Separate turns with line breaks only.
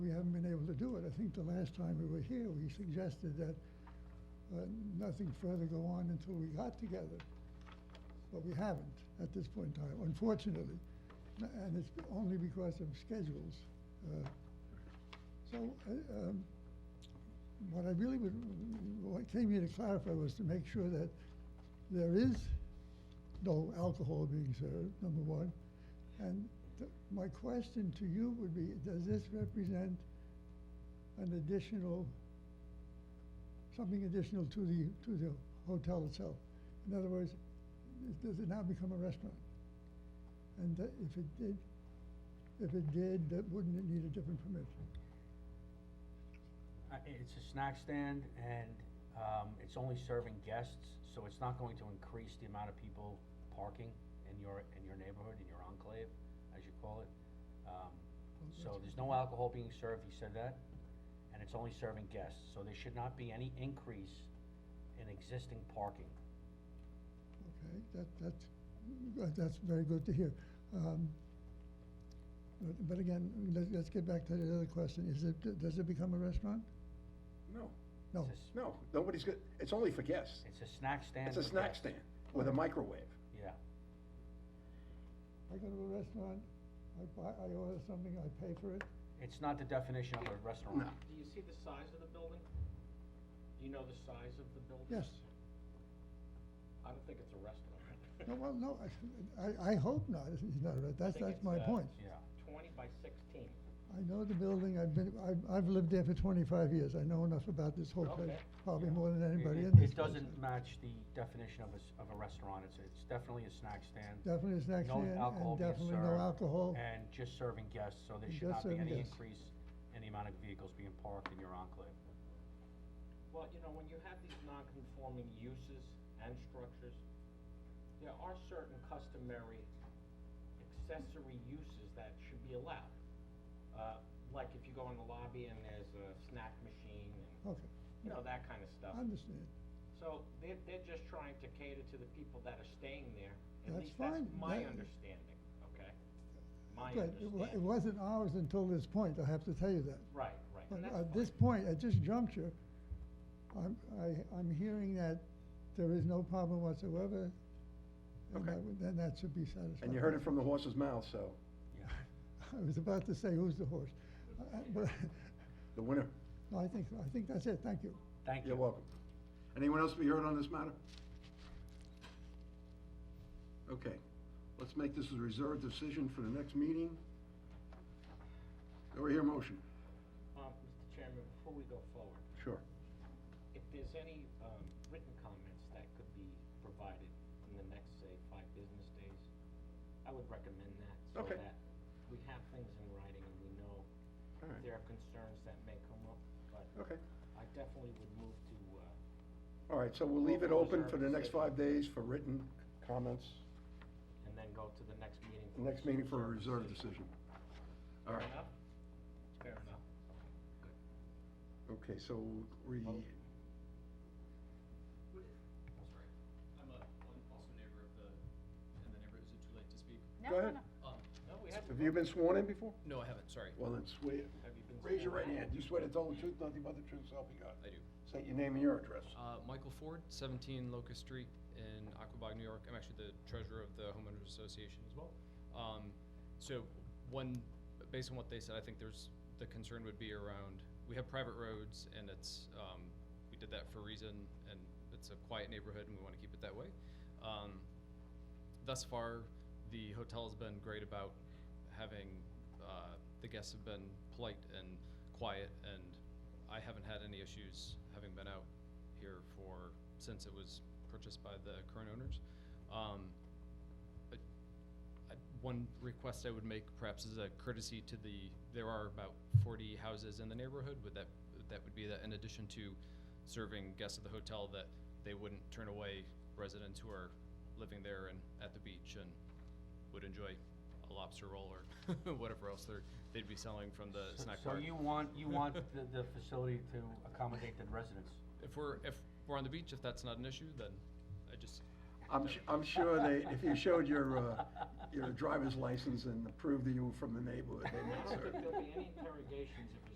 do it. I think the last time we were here, we suggested that uh, nothing further go on until we got together. But we haven't at this point in time, unfortunately. N- And it's only because of schedules. Uh, So uh, um, what I really would, what came here to clarify was to make sure that there is no alcohol being served, number one. And th- my question to you would be, does this represent an additional, something additional to the, to the hotel itself? In other words, is- does it now become a restaurant? And tha- if it did, if it did, that wouldn't it need a different permit?
Uh, i- It's a snack stand and, um, it's only serving guests, so it's not going to increase the amount of people parking in your, in your neighborhood, in your enclave, as you call it. Um, so there's no alcohol being served, he said that, and it's only serving guests, so there should not be any increase in existing parking.
Okay, that, that's, that- that's very good to hear. Um, But, but again, let's, let's get back to the other question. Is it, does it become a restaurant?
No,
No.
It's a s-
no, nobody's good, it's only for guests.
It's a snack stand
It's a
for
snack
guests.
stand with a microwave.
Yeah,
I go to a restaurant, I buy, I order something, I pay for it.
it's not the definition of a restaurant.
No.
Do you see the size of the building? Do you know the size of the building?
Yes.
I don't think it's a restaurant.
No, well, no, I- I, I hope not. It's not, a re-
I
that's,
think
that's
it's,
my
uh,
point.
Yeah.
Twenty by sixteen.
I know the building, I've been, I've, I've lived there for twenty-five years. I know enough about this whole place,
Okay.
probably
Yeah.
more than
It-
anybody
it-
in this place.
It doesn't match the definition of a, s- of a restaurant, it's, it's definitely a snack stand.
Definitely a snack
No
stand and
alcohol being
definitely no
served,
alcohol.
And just serving guests, so there
And
should
just
not be
serving
any
guests.
increase in the amount of vehicles being parked in your enclave.
Well, you know, when you have these non-conforming uses and structures, there are certain customary accessory uses that should be allowed. Uh, like if you go in the lobby and there's a snack machine and,
Okay,
you know, that kind of stuff.
I understand.
So they're, they're just trying to cater to the people that are staying there. At
That's
least
fine.
that's my
That-
understanding, okay? My
But it wa- it
understanding.
wasn't ours until this point, I have to tell you that.
Right, right.
But
and that's
at this point,
fine.
at this juncture, I'm, I, I'm hearing that there is no problem whatsoever. and
Okay.
that would- Then that should be satisfied.
And you heard it from the horse's mouth, so
Yeah.
I was about to say, who's the horse? Uh, uh, But,
the winner,
no, I think, I think that's it, thank you.
Thank you.
you're welcome. Anyone else be heard on this matter? Okay, let's make this a reserved decision for the next meeting. Do we hear a motion?
Um, Mr. Chairman, before we go forward,
Sure.
if there's any, um, written comments that could be provided in the next, say, five business days, I would recommend that, so
Okay.
that we have things in writing and we know
All right.
there are concerns that may come up, but
Okay,
I definitely would move to, uh,
all right, so we'll leave it open for the next five
Reserved
days for written comments,
and then go to the next meeting.
the next meeting for a reserved decision. All right,
Fair enough? Fair enough.
okay, so we,
I'm sorry. I'm a, I'm also a neighbor of the, in the neighborhood, is it too late to speak?
go ahead.
Um,
No, we haven't.
Have you been sworn in before?
no, I haven't, sorry.
Well, then swear,
Have you been
raise your
sworn
right
in?
hand, you swear to tell the truth, nothing but the truth, so help you God.
I do.
State your name and your address.
Uh, Michael Ford, seventeen Locust Street in Aquabog, New York. I'm actually the treasurer of the homeowners association as well. Um, so one, based on what they said, I think there's, the concern would be around, we have private roads and it's, um, we did that for a reason and it's a quiet neighborhood and we wanna keep it that way. Um, thus far, the hotel's been great about having, uh, the guests have been polite and quiet, and I haven't had any issues having been out here for, since it was purchased by the current owners. Um, I- I- One request I would make perhaps is a courtesy to the, there are about forty houses in the neighborhood, would that, that would be that in addition to serving guests of the hotel, that they wouldn't turn away residents who are living there and at the beach and would enjoy a lobster roll or whatever else they're, they'd be selling from the
So-
snack
So
bar.
you want, you want the, the facility to accommodate the residents?
If we're, if we're on the beach, if that's not an issue, then I just,
I'm, su- I'm sure they, if you showed your, uh, your driver's license and proved that you were from the neighborhood, they
I
might
don't
serve
think
you.
there'll be any interrogations if you